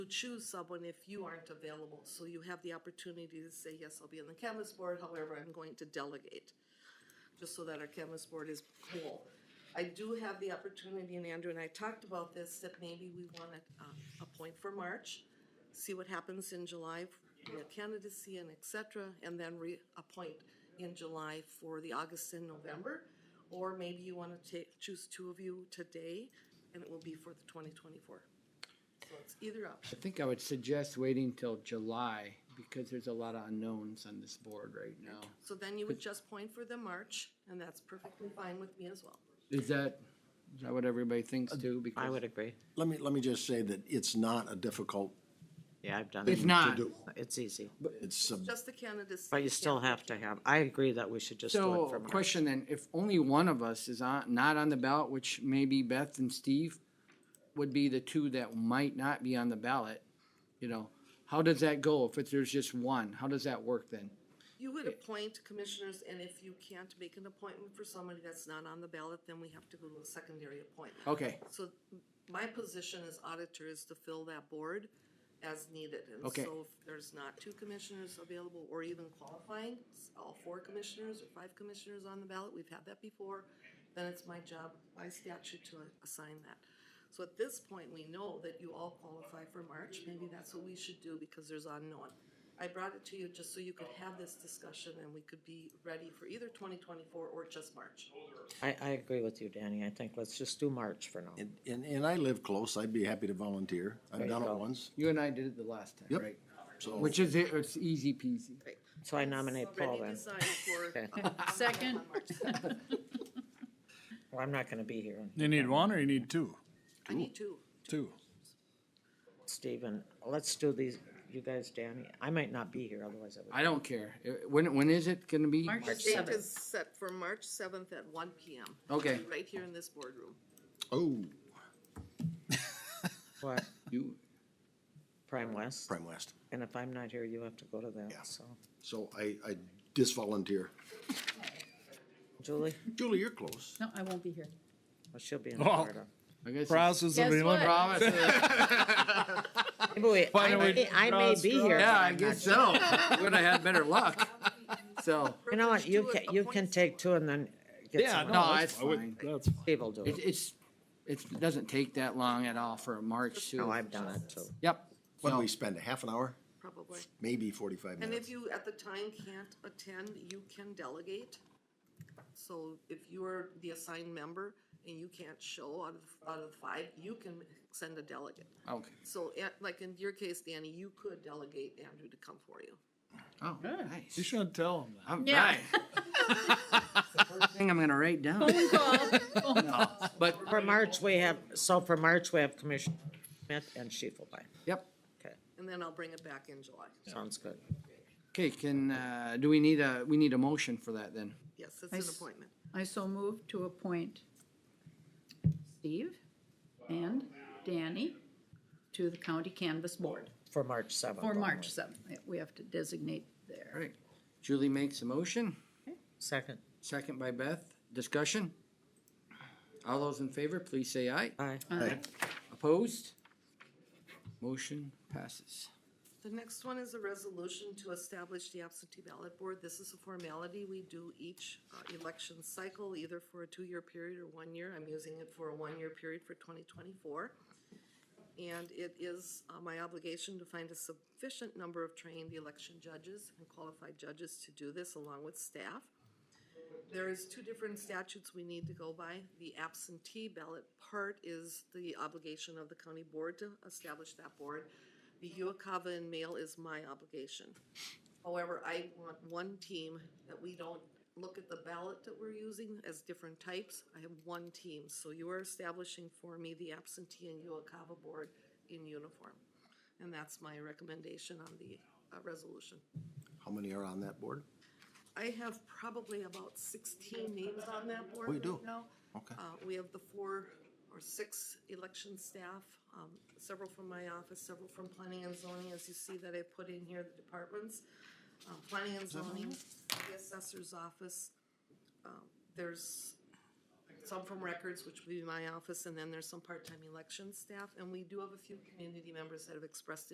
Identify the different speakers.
Speaker 1: to choose someone if you aren't available. So you have the opportunity to say, yes, I'll be on the canvas board, however, I'm going to delegate, just so that our canvas board is whole. I do have the opportunity, and Andrew and I talked about this, that maybe we want to uh, appoint for March, see what happens in July, you know, candidacy and et cetera, and then reappoint in July for the August and November. Or maybe you want to take, choose two of you today, and it will be for the twenty twenty-four. So it's either option.
Speaker 2: I think I would suggest waiting till July because there's a lot of unknowns on this board right now.
Speaker 1: So then you would just point for the March, and that's perfectly fine with me as well.
Speaker 2: Is that, is that what everybody thinks too?
Speaker 3: Uh, I
Speaker 2: Because
Speaker 3: would agree.
Speaker 4: Let me, let me just say that it's not a difficult,
Speaker 3: Yeah, I've done it.
Speaker 2: It's not.
Speaker 3: It's easy,
Speaker 4: it's, a-
Speaker 1: Just the candidacy.
Speaker 3: but you still have to have, I agree that we should just do it
Speaker 2: So,
Speaker 3: for March.
Speaker 2: question then, if only one of us is on, not on the ballot, which maybe Beth and Steve would be the two that might not be on the ballot, you know, how does that go if it's- there's just one? How does that work then?
Speaker 1: You would appoint commissioners, and if you can't make an appointment for somebody that's not on the ballot, then we have to go to a secondary appointment.
Speaker 2: Okay,
Speaker 1: So my position as auditor is to fill that board as needed. And
Speaker 2: Okay.
Speaker 1: so if there's not two commissioners available or even qualifying, s- all four commissioners or five commissioners on the ballot, we've had that before, then it's my job by statute to assign that. So at this point, we know that you all qualify for March. Maybe that's what we should do because there's unknown. I brought it to you just so you could have this discussion and we could be ready for either twenty twenty-four or just March.
Speaker 3: I, I agree with you, Danny. I think let's just do March for now.
Speaker 4: and, and- and I live close, I'd be happy to volunteer. I've done it once,
Speaker 2: you and I did it the last time,
Speaker 4: Yep.
Speaker 2: right?
Speaker 4: so.
Speaker 2: Which is, it- it's easy peasy.
Speaker 3: So I nominate Paul
Speaker 1: Already
Speaker 3: then.
Speaker 1: designed for.
Speaker 3: Okay.
Speaker 5: Second.
Speaker 1: on March
Speaker 3: Well, I'm not gonna be here. on
Speaker 6: You need one or you need two?
Speaker 1: I need two.
Speaker 4: Two.
Speaker 3: Stephen, let's do these, you guys, Danny. I might not be here, otherwise I
Speaker 2: I don't care. Uh, When, when is it gonna be?
Speaker 5: March
Speaker 1: Date
Speaker 5: seventh.
Speaker 1: is set for March seventh at one P M.
Speaker 2: Okay.
Speaker 1: Right here in this boardroom.
Speaker 4: Oh,
Speaker 3: would. What,
Speaker 2: You,
Speaker 3: Prime West?
Speaker 4: Prime West.
Speaker 3: And if I'm not here, you have to go to that, so.
Speaker 4: So I, I disvolunteer.
Speaker 3: Julie,
Speaker 4: Julie, you're close.
Speaker 5: No, I won't be here.
Speaker 3: well, she'll be in
Speaker 6: Oh.
Speaker 3: Florida.
Speaker 2: I guess. it's-
Speaker 6: Process
Speaker 5: Guess
Speaker 6: of elimination.
Speaker 5: what?
Speaker 2: Promise.
Speaker 3: Maybe we-
Speaker 6: Why
Speaker 3: I
Speaker 6: don't we
Speaker 3: may, I may be here.
Speaker 2: Yeah,
Speaker 3: but
Speaker 2: I
Speaker 3: I'm
Speaker 2: guess
Speaker 3: not.
Speaker 2: so. Would have had better luck. So,
Speaker 3: You know what, you
Speaker 1: Do it,
Speaker 3: can, you
Speaker 1: appoint
Speaker 3: can take two and then get
Speaker 6: Yeah,
Speaker 3: some.
Speaker 2: no,
Speaker 6: that's
Speaker 2: it's
Speaker 6: fine. I would-
Speaker 2: fine.
Speaker 6: That's fine.
Speaker 3: Steve will do
Speaker 2: It,
Speaker 3: it.
Speaker 2: it's, it's, it doesn't take that long at all for a March
Speaker 3: No,
Speaker 2: too.
Speaker 3: I've done it too.
Speaker 2: Yep.
Speaker 4: What do we
Speaker 2: So,
Speaker 4: spend, a half an hour?
Speaker 1: Probably.
Speaker 4: Maybe forty-five
Speaker 1: And if
Speaker 4: minutes.
Speaker 1: you, at the time, can't attend, you can delegate. So if you are the assigned member and you can't show out of, out of five, you can send a delegate.
Speaker 2: Okay.
Speaker 1: So, eh, like in your case, Danny, you could delegate Andrew to come for you.
Speaker 2: Oh,
Speaker 6: You
Speaker 2: nice.
Speaker 6: shouldn't tell him that.
Speaker 2: All
Speaker 5: Yeah.
Speaker 2: right. First Thing I'm gonna write down. But,
Speaker 3: For March, we have, so for March, we have Commissioner Smith and Schiefelbein.
Speaker 2: yep.
Speaker 3: Okay,
Speaker 1: And then I'll bring it back in July.
Speaker 3: sounds good.
Speaker 2: Okay, can, uh, do we need a, we need a motion for that then?
Speaker 1: Yes, it's
Speaker 5: I
Speaker 1: an
Speaker 5: s-
Speaker 1: appointment.
Speaker 5: I so move to appoint Steve and Danny to the county canvas board
Speaker 3: For March seventh.
Speaker 5: for March seventh. We have to designate
Speaker 2: All
Speaker 5: there.
Speaker 2: right. Julie makes a motion,
Speaker 3: Second,
Speaker 2: second by Beth. Discussion? All those in favor, please say aye.
Speaker 3: aye.
Speaker 5: Uh,
Speaker 2: Opposed? Motion passes.
Speaker 1: The next one is a resolution to establish the absentee ballot board. This is a formality we do each uh, election cycle, either for a two-year period or one year. I'm using it for a one-year period for 2024. And it is uh, my obligation to find a sufficient number of trained election judges and qualified judges to do this along with staff. There is two different statutes we need to go by. The absentee ballot part is the obligation of the county board to establish that board. The UOCAVA and mail is my obligation. However, I want one team that we don't look at the ballot that we're using as different types. I have one team, so you are establishing for me the absentee and UOCAVA board in uniform. And that's my recommendation on the uh, resolution.
Speaker 4: How many are on that board?
Speaker 1: I have probably about sixteen names on that board
Speaker 4: Oh, you
Speaker 1: right
Speaker 4: do?
Speaker 1: now.
Speaker 4: Okay.
Speaker 1: Uh, we have the four or six election staff, um, several from my office, several from planning and zoning, as you see that I put in here, the departments. Um, planning and zoning, the assessor's office, um, there's some from records, which would be my office, and then there's some part-time election staff. And we do have a few community members that have expressed